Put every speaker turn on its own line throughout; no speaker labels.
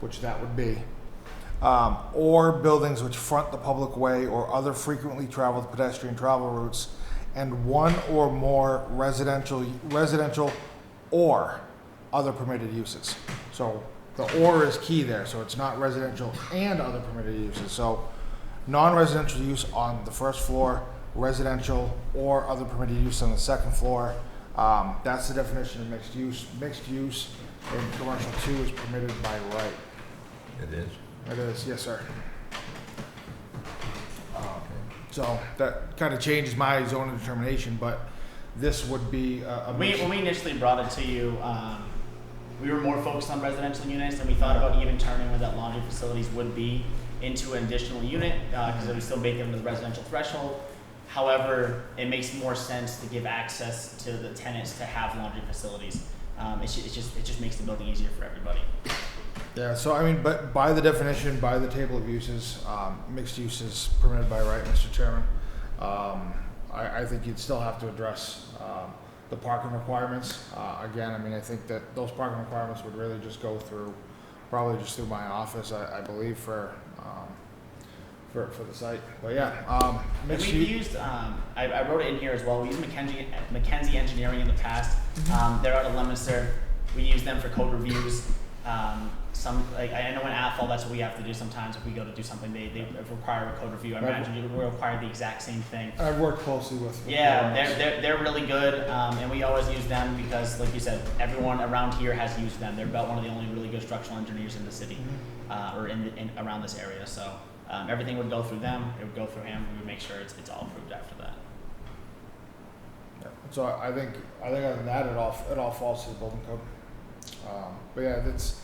which that would be, um, or buildings which front the public way or other frequently traveled pedestrian travel routes, and one or more residential, residential or other permitted uses. So the or is key there, so it's not residential and other permitted uses. So non-residential use on the first floor, residential or other permitted use on the second floor. Um, that's the definition of mixed use. Mixed use in commercial two is permitted by right.
It is.
It is, yes, sir. Um, So that kind of changes my zoning determination, but this would be a. a
We, when we initially brought it to you, um, we were more focused on residential units, and we thought about even turning where that laundry facilities would be into an additional unit, because it would still make it under the residential threshold. However, it makes more sense to give access to the tenants to have laundry facilities. Um, it's, ju- it's just, it just makes the building easier for everybody.
Yeah, so I mean, but by the definition, by the table of uses, um, mixed use is permitted by right, Mr. Chairman. Um, I, I think you'd still have to address, um, the parking requirements. Uh, again, I mean, I think that those parking requirements would really just go through, probably just through my office, I, I believe, for, um, for, for the site. But yeah, um,
And
mixed
we've
use.
used, um, I, I wrote it in here as well. We used McKenzie, McKenzie Engineering in the past. Um, they're out of Leominster. We use them for code reviews. Um, some, like, I I know in Athol, that's what we have to do sometimes if we go to do something, they, they require a code review. I
Right.
imagine you would require the exact same thing.
I've worked closely with. with
Yeah,
Laura.
they're, they're, they're really good, um, and we always use them because, like you said, everyone around here has used them. They're about one of the only really good structural engineers in the city, uh, or in, the- in, around this area, so, um, everything would go through them, it would go through him, we would make sure it's, it's all approved after that.
Yeah, So I I think, I think other than that, it all, it all falls to the building code. Um, but yeah, that's,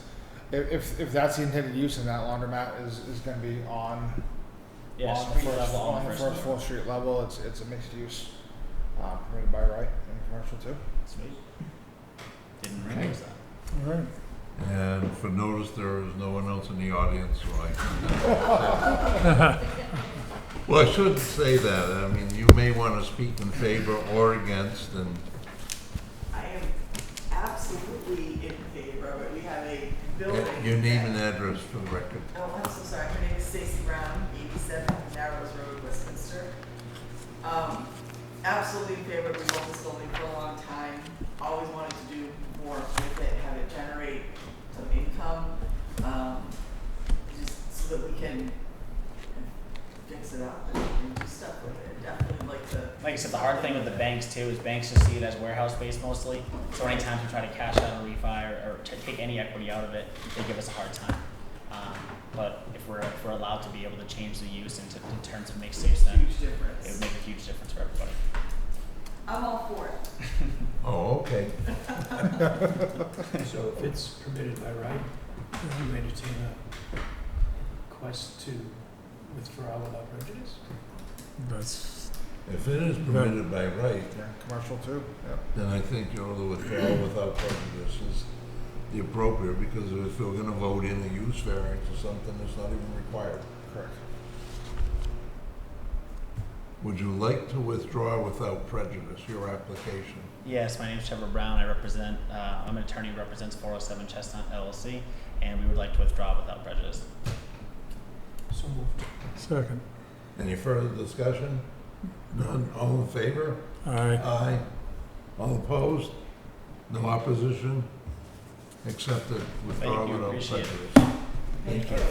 if, if, if that's the intended use and that laundromat is, is gonna be on,
Yeah,
on the
street
first,
level,
on the first floor, street level, it's, it's a mixed use, uh, permitted by right in commercial too.
Sweet. Didn't realize that.
Alright.
And for notice, there is no one else in the audience, so I can... Well, I shouldn't say that. I mean, you may want to speak in favor or against, and
I am absolutely in favor of it. We have a building.
your name and
that-
address for the record.
Oh, I'm so sorry. My name is Stacy Brown, 87 Narrows Road, Westminster. Um, Absolutely in favor. We've owned this building for a long time. Always wanted to do more with it, have it generate some income, um, just so that we can fix it up and- and do stuff with it. Definitely like to.
Like I said, the hard thing with the banks too is banks just see it as warehouse space mostly. So anytime you try to cash out a refi or, or to take any equity out of it, they give us a hard time. Um, but if we're if we're allowed to be able to change the use into in terms of mixed use, then
Huge
it would
difference.
make a huge difference for everybody.
I'm all for it.
Oh, okay.
So if it's permitted by right, would you entertain a request to withdraw without prejudice?
That's
If it is permitted by right,
Yeah, commercial too, yeah.
then I think your other withdrawal without prejudice is the appropriate, because if we're going to vote in a use variance or something, it's not even required.
Correct.
Would you like to withdraw without prejudice your application?
Yes, my name is Trevor Brown. I represent uh, I'm an attorney who represents 407 Chestnut LLC, and we would like to withdraw without prejudice.
So moved.
second.
Any further discussion? None, all in favor?
Aye.
Aye. All opposed? No opposition? Accepted, withdraw
Thank you,
without
appreciate it.
prejudice.
Thank you.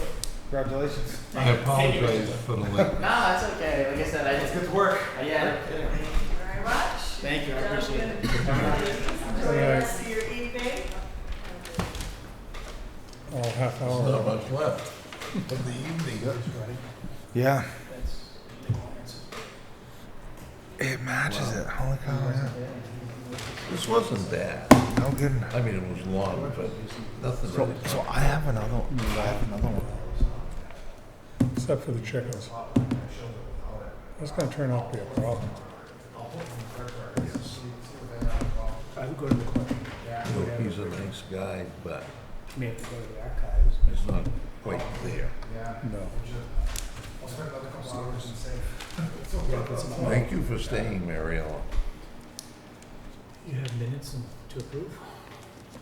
Congratulations.
I apologize for the length.
No, that's okay. Like I said, I just good work. Yeah.
Thank you very much.
Thank you, I appreciate it.
Gentlemen, Enjoy the rest of your evening.
All half
There's not
hour.
much left of the evening.
Yeah,
That's, they won't answer.
it matches it, holy cow, yeah.
This wasn't bad.
No good.
I mean, it was long, but nothing
So,
really.
so I have another, I have another one.
Except for the chickens. That's gonna turn out to be a problem.
I would go to the court.
No, He's a nice guy, but
May have to go to the archives.
it's not quite there.
Yeah.
No.
I'll spend another couple hours and save.
Thank you for staying, Mariella.
You have minutes and- to approve?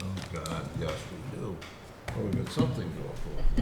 Oh, God, yes, we do. Well, we've got something to go for.